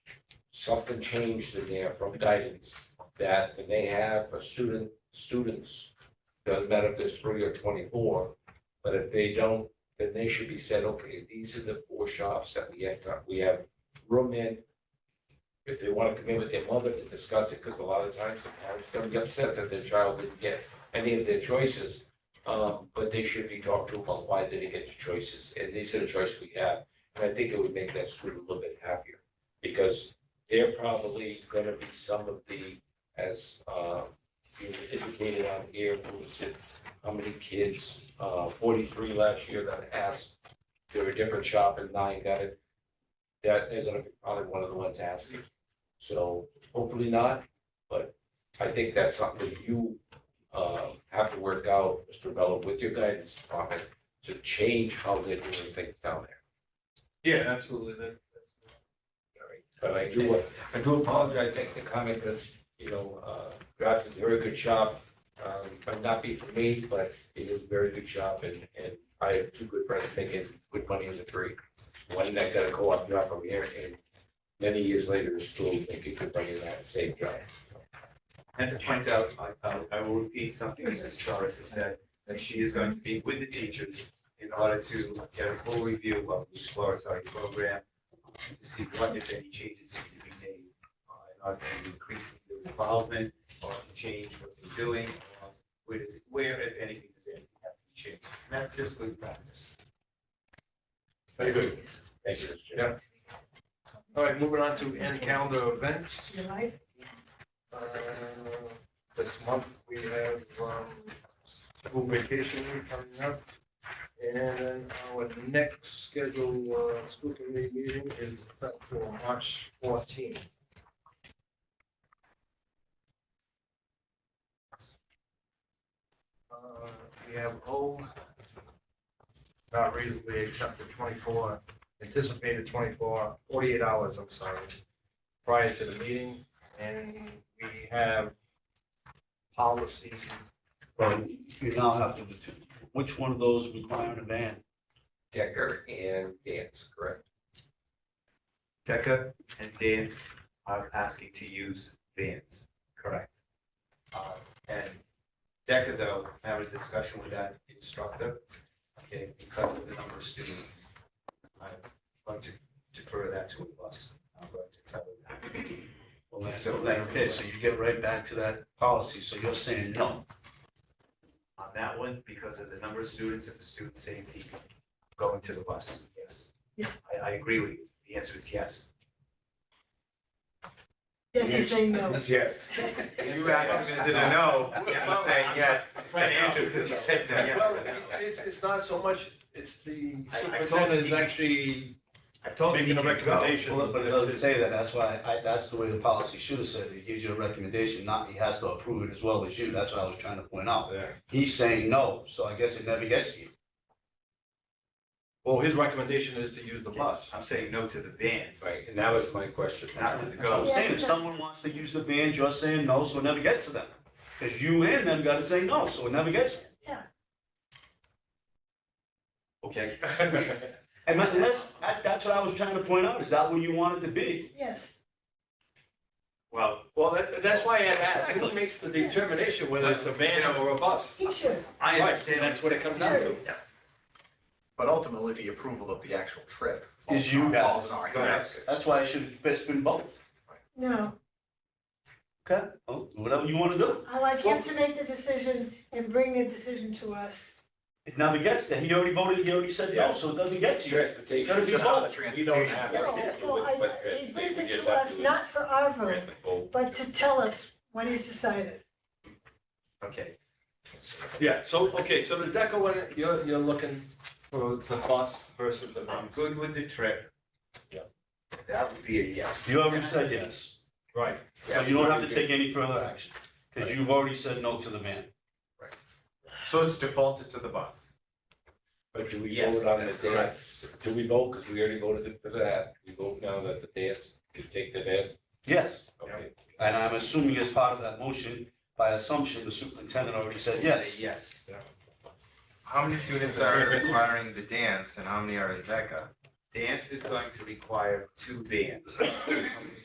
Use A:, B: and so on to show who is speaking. A: something changed in there from guidance that when they have a student, students, doesn't matter if there's three or twenty-four, but if they don't, then they should be said, okay, these are the four shops that we have, we have room in. If they want to come in with their mother to discuss it, because a lot of times the parents gonna be upset that their child didn't get any of their choices. Um, but they should be talked to about why they didn't get the choices, and these are the choices we have. And I think it would make that student a little bit happier, because they're probably gonna be some of the, as, uh, you indicated on here, who was it, how many kids, uh, forty-three last year that asked, there were different shop and nine got it. That they're gonna be probably one of the ones asking, so hopefully not, but I think that's something you, uh, have to work out, Mr. Mello, with your guidance department, to change how they're doing things down there.
B: Yeah, absolutely, that, that's.
A: But I do, I do apologize, I think the comment because, you know, uh, Graff is a very good shop. Um, might not be for me, but it is a very good shop and, and I have two good friends making good money in the tree. One that got a co-op job over here and many years later is still making good money in that same job.
C: And to point out, I, I- I will repeat something Mrs. Torres has said, that she is going to be with the teachers in order to get a full review of the exploratory program, and to see what if any changes need to be made, uh, in order to increase the involvement, or to change what they're doing, or where does, it- where if anything, does anything have to be changed? And that's just good practice.
B: Very good.
A: Thank you, Mr. Chair.
B: Yeah. All right, moving on to end calendar events.
D: July,
B: Uh, This month, we have um, school vacation week coming up. And then our next scheduled uh, school committee meeting is set for March 14th. Uh, We have O, not reasonably except the 24, anticipated 24, 48 hours, I'm sorry, prior to the meeting. And we have policies.
E: But you now have to, determine which one of those require an event?
A: Decker and Dance, correct?
C: Becca and Dance are asking to use vans. Correct. Uh, And DECA, though, had a discussion with that instructor, okay, because of the number of students. I'd like to defer that to a bus. I'm going to tell them that.
E: Well, that's like this, so you get right back to that policy, so you're saying no.
C: On that one, because of the number of students and the student safety going to the bus, yes.
D: Yeah.
C: I, I agree with you. The answer is yes.
D: yes, he's saying no.
A: Yes.
C: You asked him, did no? I'm saying yes.
B: Right, Andrew,
C: did you say that?
B: Well, it's, it's not so much, it's the
C: I- I told
B: superintendent is
C: you-
B: actually
C: I told
B: making a recommendation.
E: Well, But it doesn't say that, that's why, I, that's the way the policy should have said, it gives you a recommendation, not he has to approve it as well as you, that's what I was trying to point out.
B: Yeah.
E: He's saying no, so I guess it never gets to you.
B: Well, his recommendation is to use the bus.
C: I'm saying no to the vans,
A: Right, and that was my question.
C: not to the
E: That's what I'm
C: goes.
E: saying, if someone wants to use the van, you're saying no, so it never gets to them. Because you and them gotta say no, so it never gets. to you.
C: Okay.
E: And that's, that's, that's what I was trying to point out, is that where you want it to be?
D: Yes,
C: Well,
B: Well, that, that's why I had asked, who makes the determination whether it's a van or a bus?
D: he should.
C: I
B: Right,
C: understand.
B: That's what it comes down to.
F: But ultimately, the approval of the actual trip.
E: Is
F: falls-
E: you
F: Falls
E: guys.
F: in our hands.
B: Correct.
E: That's why it should have best been both.
D: No,
E: Okay. Oh, whatever you want to do.
D: I like him to make the decision and bring the decision to us.
E: It never gets there. He already voted, he already said no, so it doesn't get to you. It's
A: Transportation.
E: gotta be
F: Just on the
E: both.
A: You don't
F: transportation.
A: have.
D: No,
E: yeah,
D: no, I, he brings it to us, not for our vote,
A: Oh,
D: but to tell us what he's decided.
C: Okay,
B: Yeah, so, okay, so the DECA one, you're, you're looking for the bus versus the
C: I'm
B: van.
C: good with the trip.
B: Yeah.
C: That would be a yes.
E: You already said yes.
B: Right.
E: So you don't have to take any further action because you've already said no to the man.
F: So it's defaulted to the bus.
A: But do we
C: Yes,
A: vote on the
C: that's correct.
A: dance? Do we vote, because we already voted for that, we vote now that the dance, you take the dance,
E: Yes.
A: okay?
E: And I'm assuming as part of that motion, by assumption, the superintendent already said yes.
C: Say Yes.
F: How many students are requiring the dance and how many are in DECA?
C: Dance is going to require two vans.